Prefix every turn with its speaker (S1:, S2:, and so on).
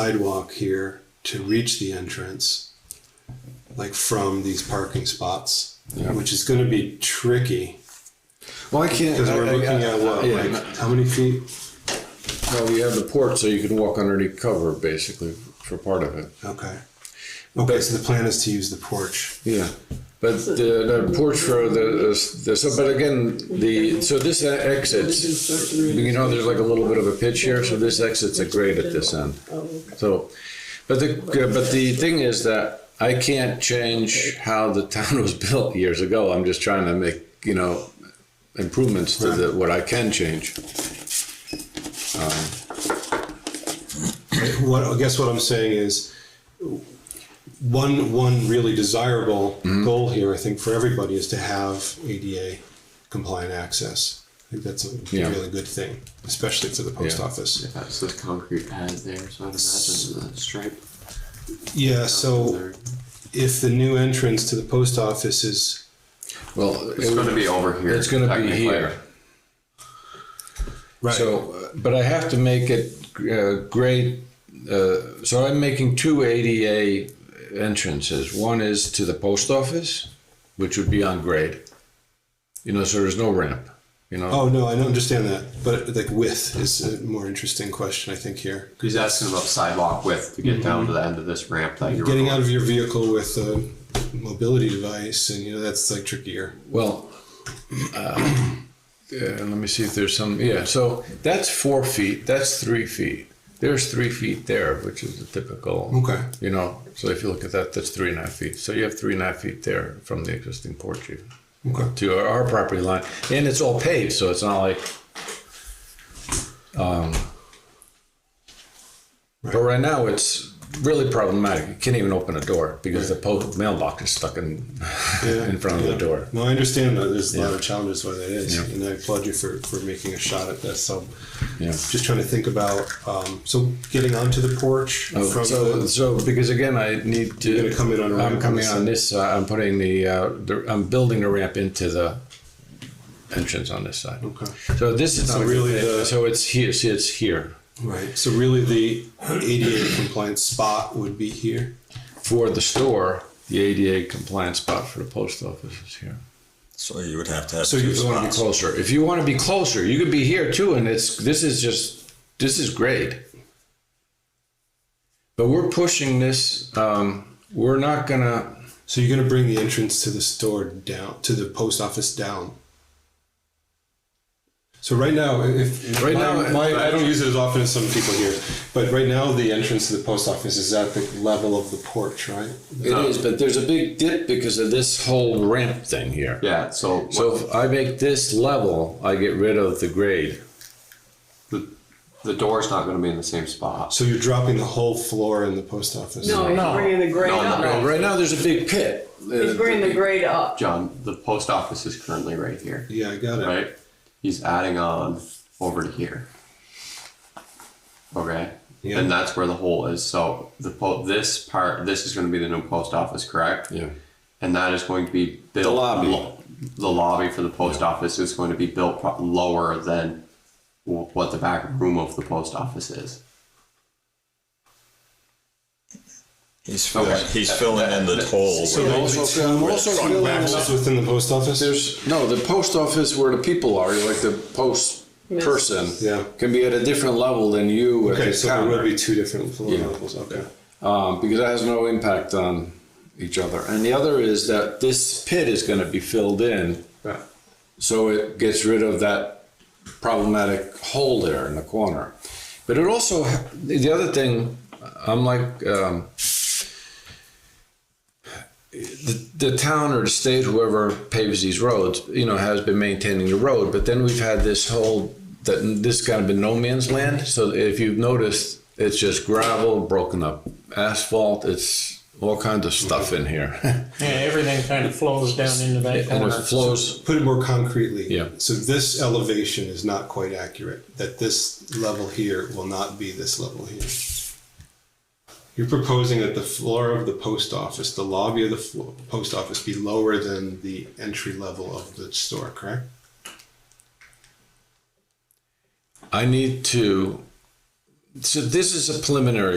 S1: sidewalk here to reach the entrance, like from these parking spots,
S2: Yeah.
S1: which is going to be tricky
S2: Well, I can't.
S1: because
S2: I-
S1: we're
S2: I-
S1: looking
S2: I-
S1: at what,
S2: yeah,
S1: like how many feet?
S2: Well, you have the porch, so you can walk underneath cover, basically, for part of it.
S1: Okay. Okay, so the plan is to use the porch.
S2: Yeah. But the, the porch for the, the so, but again, the so this e, exits. You know, there's like a little bit of a pitch here, so this exits a grade at this end. So, but the but the thing is that I can't change how the town was built years ago. I'm just trying to make you know improvements to the, what I can change.
S1: What I guess what I'm saying is one one really desirable
S2: Mm-hmm.
S1: goal here, I think, for everybody is to have ADA compliant access. I think that's a
S2: Yeah.
S1: really good thing, especially to the post
S2: Yeah.
S1: office.
S3: That's the concrete pad there, so I'd imagine the stripe.
S1: Yeah, so
S3: there.
S1: if the new entrance to the post office is,
S2: Well,
S3: It's gonna be over here.
S2: It's going to be
S3: technically.
S2: here. So, uh, but I have to make it uh, grade. Uh, so I'm making two ADA entrances. One is to the post office, which would be on grade. You know, so there's no ramp. You know,
S1: oh no, I don't understand that. But like width is a more interesting question, I think, here.
S3: He's asking about sidewalk width to get down to the end of this ramp that you're
S1: Getting out of your vehicle with a mobility device, and you know, that's like trickier.
S2: well. Uh, yeah, let me see if there's some. Yeah, so that's four feet. That's three feet. There's three feet there, which is the typical.
S1: Okay.
S2: You know, so if you look at that, that's three and a half feet. So you have three and a half feet there from the existing porch even,
S1: Okay.
S2: to our, our property line, and it's all paved, so it's not like. Um, But right now, it's really problematic. You can't even open a door because the po- mailbox is stuck in in front of the door.
S1: No, I understand that. There's a lot of challenges why that is, and I applaud you for for making a shot at this. So,
S2: Yeah.
S1: just trying to think about um, so getting onto the porch
S2: Oh,
S1: from
S2: so,
S1: the,
S2: so because again, I need to.
S1: You're gonna come in on a ramp
S2: I'm
S1: on
S2: coming
S1: this
S2: on
S1: side.
S2: this. side. I'm putting the, uh, the. I'm building the ramp into the entrance on this side.
S1: Okay.
S2: So this is
S1: So
S2: not
S1: really
S2: really.
S1: the-
S2: so it's here. See, it's here
S1: right. So really, the ADA compliant spot would be here.
S2: for the store. The ADA compliant spot for the post office is here.
S4: So you would have to have
S1: So
S4: two
S1: you
S2: You want to be
S4: spots.
S2: closer. If you want to be closer, you could be here too. And it's this is just this is great. But we're pushing this. Um, we're not gonna.
S1: So you're going to bring the entrance to the store down to the post office down. So right now, if if
S2: Right
S1: my,
S2: now,
S1: my, I don't use it as often as some people here, but right now the entrance to the post office is at the level of the porch, right?
S2: It is, but there's a big dip because of this whole ramp thing here.
S3: Yeah, so,
S2: So if I make this level, I get rid of the grade.
S3: the, the door's not gonna be in the same spot.
S1: So you're dropping the whole floor in the post office.
S5: No, he's bringing the grade
S3: No, no,
S2: Well,
S5: up.
S2: right now, there's a big pit. Uh,
S5: He's bringing the grade up.
S3: John, the post office is currently right here,
S1: Yeah, I got it.
S3: right? He's adding on over to here. Okay?
S1: Yeah.
S3: And that's where the hole is, so the po, this part, this is gonna be the new post office, correct?
S2: Yeah.
S3: and that is going to be built. The
S2: lobby.
S3: the lobby for the post office is going to be built pro- lower than w- what the back room of the post office is.
S4: He's filling,
S3: Okay.
S4: he's filling in the toll.
S1: So
S4: where-
S1: I'm also, I'm also
S2: It's
S1: on
S2: filling
S1: backwards
S2: up.
S1: within the post office.
S2: There's, no, the post office where the people are, like the post person,
S1: Yeah.
S2: can be at a different level than you at
S1: okay,
S2: the
S1: so there would
S2: counter.
S1: be two different floor
S2: Yeah.
S1: levels. Okay.
S2: Um, because that has no impact on each other. And the other is that this pit is going to be filled in,
S1: Right.
S2: so it gets rid of that problematic hole there in the corner. But it also, the other thing, I'm like, um, the, the town or the state, whoever paves these roads, you know, has been maintaining the road. But then we've had this whole, that this kind of been no man's land. So if you've noticed, it's just gravel, broken up asphalt, it's all kinds of stuff in here.
S6: Yeah, everything kind of flows down into that
S2: and it
S6: corner.
S2: flows,
S1: Put it more concretely.
S2: Yeah.
S1: So this elevation is not quite accurate. That this level here will not be this level here. You're proposing that the floor of the post office, the lobby of the flo post office, be lower than the entry level of the store, correct?
S2: I need to, so this is a preliminary